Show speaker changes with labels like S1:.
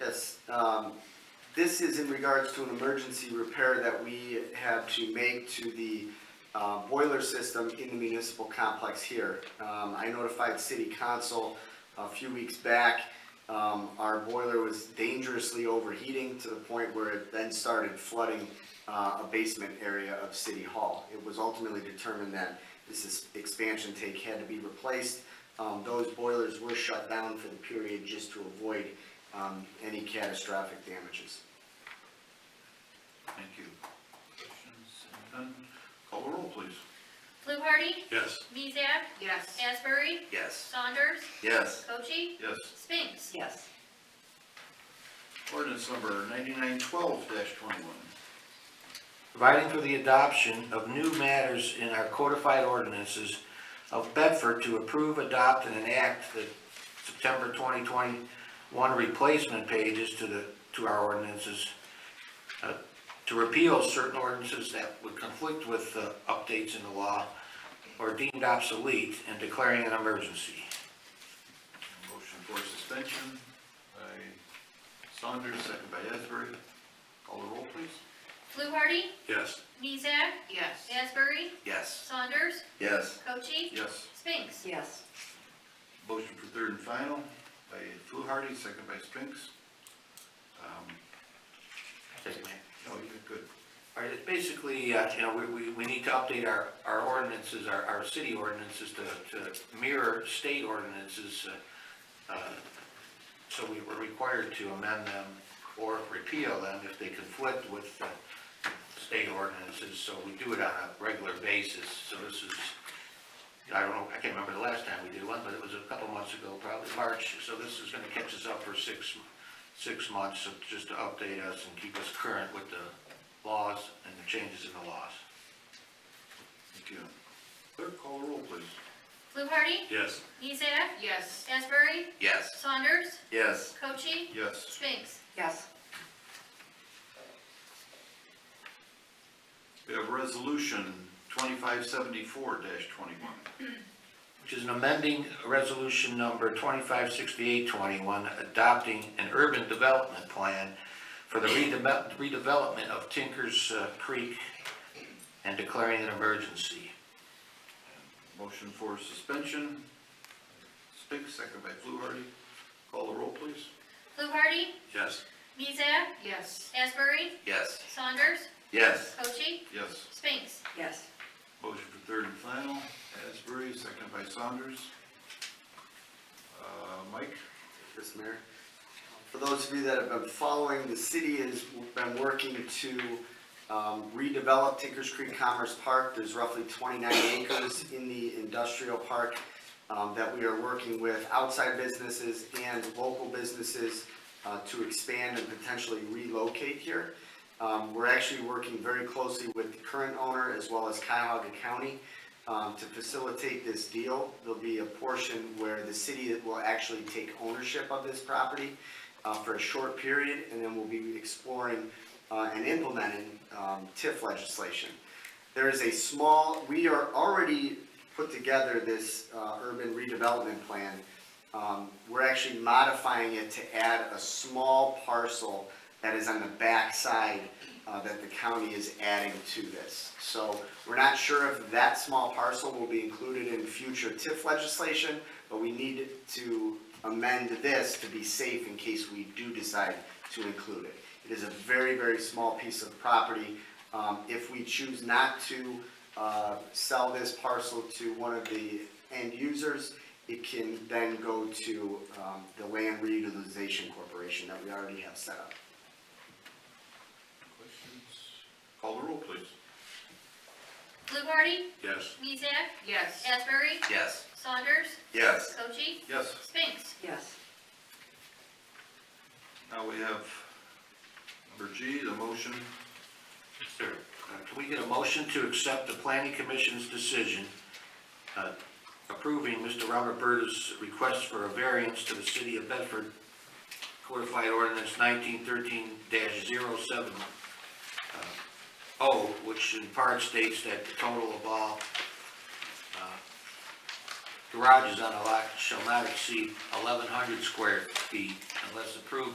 S1: Yes, um, this is in regards to an emergency repair that we had to make to the, uh, boiler system in the municipal complex here. Um, I notified city council a few weeks back, um, our boiler was dangerously overheating to the point where it then started flooding, uh, a basement area of city hall. It was ultimately determined that this is, expansion tank had to be replaced. Um, those boilers were shut down for the period just to avoid, um, any catastrophic damages.
S2: Thank you. Questions? Seeing none. Call the roll, please.
S3: Fluharty?
S2: Yes.
S3: Mizak?
S4: Yes.
S3: Asbury?
S5: Yes.
S3: Saunders?
S5: Yes.
S3: Cochee?
S2: Yes.
S3: Spinks?
S4: Yes.
S2: Ordinance number ninety-nine twelve twenty-one.
S5: Providing for the adoption of new matters in our codified ordinances of Bedford to approve, adopt, and enact the September 2021 replacement pages to the, to our ordinances, uh, to repeal certain ordinances that would conflict with the updates in the law or deemed obsolete and declaring an emergency.
S2: Motion for suspension by Saunders, second by Asbury. Call the roll, please.
S3: Fluharty?
S2: Yes.
S3: Mizak?
S4: Yes.
S3: Asbury?
S5: Yes.
S3: Saunders?
S5: Yes.
S3: Cochee?
S2: Yes.
S3: Spinks?
S4: Yes.
S2: Motion for third and final by Fluharty, second by Spinks. Um, No, you're good.
S5: All right, it's basically, uh, you know, we, we, we need to update our, our ordinances, our, our city ordinances to, to mirror state ordinances. uh, uh, So we were required to amend them or repeal them if they conflict with uh, state ordinances. So we do it on a regular basis. So this is, I don't know, I can't remember the last time we did one, but it was a couple months ago, probably March. So this is gonna catch us up for six, six months, so just to update us and keep us current with the laws and the changes in the laws.
S2: Thank you. Clerk, call the roll, please.
S3: Fluharty?
S2: Yes.
S3: Mizak?
S4: Yes.
S3: Asbury?
S5: Yes.
S3: Saunders?
S5: Yes.
S3: Cochee?
S2: Yes.
S3: Spinks?
S4: Yes.
S2: We have resolution twenty-five seventy-four twenty-one.
S5: Which is an amending resolution number 256821, adopting an urban development plan for the redeve- redevelopment of Tinkers uh, Creek and declaring an emergency.
S2: Motion for suspension, Spinks, second by Fluharty. Call the roll, please.
S3: Fluharty?
S5: Yes.
S3: Mizak?
S4: Yes.
S3: Asbury?
S5: Yes.
S3: Saunders?
S5: Yes.
S3: Cochee?
S2: Yes.
S3: Spinks?
S4: Yes.
S2: Motion for third and final, Asbury, second by Saunders. Uh, Mike?
S1: Mr. Mayor. For those of you that have been following, the city has been working to um, redevelop Tinkers Creek Commerce Park. There's roughly 29 acres in the industrial park um, that we are working with outside businesses and local businesses uh, to expand and potentially relocate here. Um, We're actually working very closely with the current owner as well as Cuyahoga County um, to facilitate this deal. There'll be a portion where the city will actually take ownership of this property uh, for a short period, and then we'll be exploring uh, and implementing um, TIF legislation. There is a small, we are already put together this uh, urban redevelopment plan. Um, We're actually modifying it to add a small parcel that is on the backside uh, that the county is adding to this. So we're not sure if that small parcel will be included in future TIF legislation, but we need to amend this to be safe in case we do decide to include it. It is a very, very small piece of property. Um, If we choose not to uh, sell this parcel to one of the end users, it can then go to um, the Land Reutilization Corporation that we already have set up.
S2: Questions? Call the roll, please.
S3: Fluharty?
S2: Yes.
S3: Mizak?
S4: Yes.
S3: Asbury?
S5: Yes.
S3: Saunders?
S5: Yes.
S3: Cochee?
S2: Yes.
S3: Spinks?
S4: Yes.
S2: Now we have number G, the motion.
S5: Sir, uh, can we get a motion to accept the planning commission's decision uh, approving Mr. Robert Berta's request for a variance to the city of Bedford codified ordinance nineteen thirteen 70 uh, which in part states that the total of all uh, garages on a lot shall not exceed eleven hundred square feet unless approved by